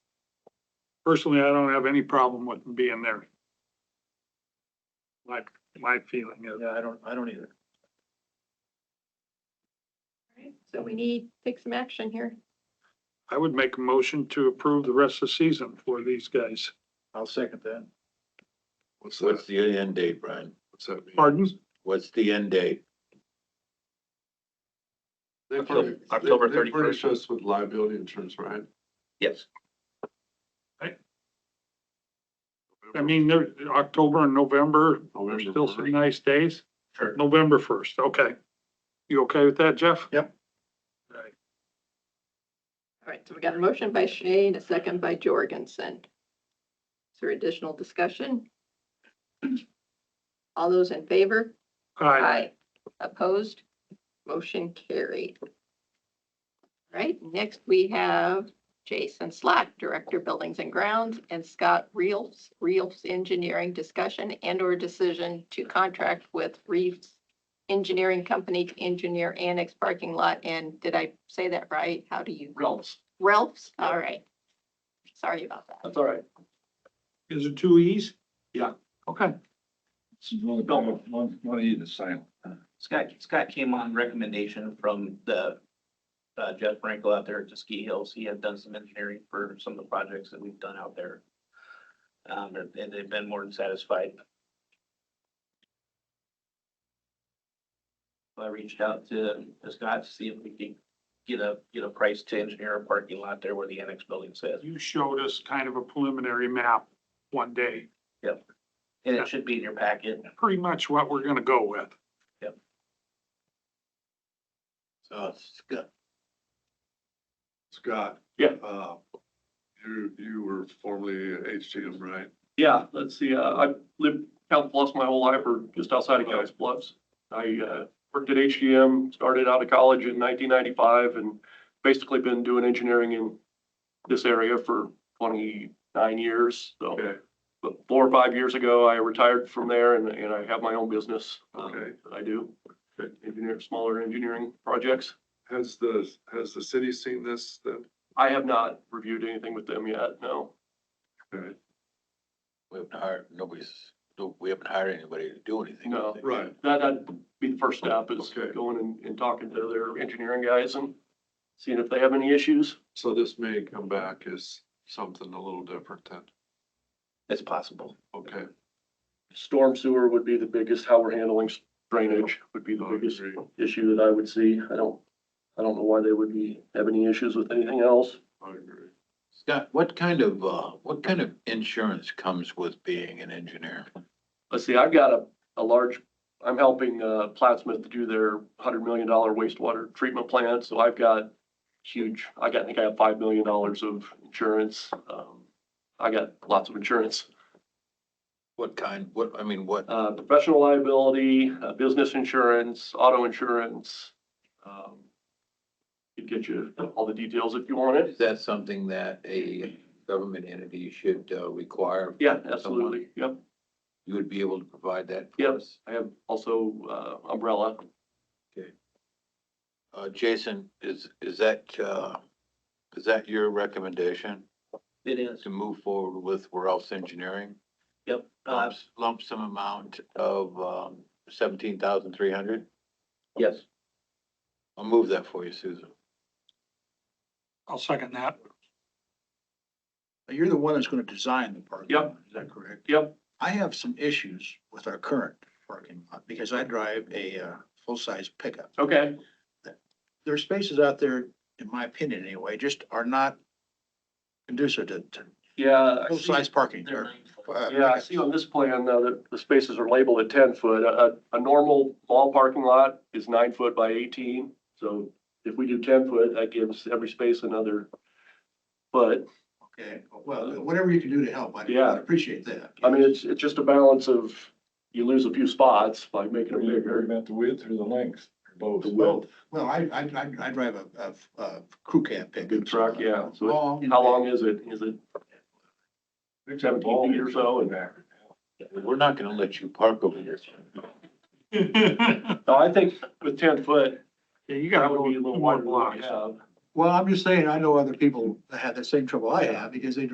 personally, I don't have any problem with them being there. My, my feeling is. Yeah, I don't, I don't either. So we need, take some action here. I would make a motion to approve the rest of the season for these guys. I'll second that. What's What's that, the end date, Brian? what's that mean? Pardon? What's the end date? They- October- they- October they furnish 31st. us with liability insurance, right? Yes. I mean, they're, October and November, there's still some nice days. Sure. November first, okay. You okay with that, Jeff? Yep. All right. All right, so we got a motion by Shane, a second by Jorgensen. Is there additional discussion? All those in favor? All right, Opposed? Motion carried. All Right, next we have Jason Slack, Director Buildings and Grounds, and Scott Reels, Reels Engineering Discussion and/or Decision to Contract with Reeves Engineering Company to engineer annex parking lot, and did I say that right? How do you? Realms. Ralph's, all right. Sorry about that. That's all right. is it two E's? Yeah. Okay, Don't- One, one of you to sign. Scott, Scott came on recommendation from the, uh, Jeff Frankel out there at the ski hills. He had done some engineering for some of the projects that we've done out there. Um, and- and they've been more than satisfied. I reached out to to Scott to see if we could get a, get a price to engineer a parking lot there where the annex building sits. you showed us kind of a preliminary map one day, And it should be in your packet. pretty much what we're gonna go with. So it's got Scott. Yeah. Uh, you, you were formerly HTM, right? Yeah, let's see, uh, I've lived Council Bluffs my whole life, or just outside of Council Bluffs. I, uh, worked at HGM, started out of college in nineteen ninety-five, and basically been doing engineering in this area for twenty-nine years, so. Okay. But four or five years ago, I retired from there and, and I have my own business. um, Okay. That I do, Good. engineer, smaller engineering projects. Has the, has the city seen this then? I have not reviewed anything with them yet, no. Okay. we haven't hired, nobody's, no- we haven't hired anybody to do anything. No. Right, That, that'd be the first step is Okay. going and, and talking to their engineering guys and seeing if they have any issues. so this may come back as something a little different then, It's possible. okay? Storm sewer would be the biggest, how we're handling drainage would be the I would biggest agree. issue that I would see. I don't, I don't know why they would be, have any issues with anything else. I agree. Scott, what kind of, uh, what kind of insurance comes with being an engineer? Let's see, I've got a, a large, I'm helping, uh, Plattsmouth do their hundred million dollar wastewater treatment plant, so I've got huge, I got, I think I have five million dollars of insurance. Um, I got lots of insurance. What kind, what, I mean, what, uh, professional liability, uh, business insurance, auto insurance. um, Could get you all the details if you want it. is that something that a government entity should, uh, require? Yeah, absolutely. Yep. You would be able to provide that? for Yep. us? I have also uh, umbrella. Uh, Jason, is, is that, uh, is that your recommendation It is. to move forward with Ralph's Engineering? Yep. Uh, Lump, lump sum amount of, um, seventeen thousand three hundred? yes. I'll move that for you, Susan. I'll second that. You're the one that's gonna design the parking. Yep. lot, Is that correct? Yep. I have some issues with our current parking lot because I drive a, uh, full-size pickup. Okay. There are spaces out there, in my opinion anyway, just are not conducive to, to Yeah. I see- full-size parking. They're or, nine foot. uh, Yeah, I see on this plan uh, that the spaces are labeled at ten foot. A, a- a normal mall parking lot is nine foot by eighteen. So if we do ten foot, that gives every space another foot. Okay, well, whatever you can do to help, I Yeah. I appreciate that. I mean, it's, it's just a balance of, you lose a few spots by making it You're bigger. about the width or the length, both. Well, well, I, I, I- I drive a, a, a crew cab pickup. Good truck, yeah. So it- Long. how long is it? Is it, Seventeen feet or so, and- We're not gonna let you park over here. Yeah, no, I think with ten foot, you gotta that go would be a two little more wider than what blocks. we have. Well, I'm just saying, I know other people that have the same trouble I have because they drive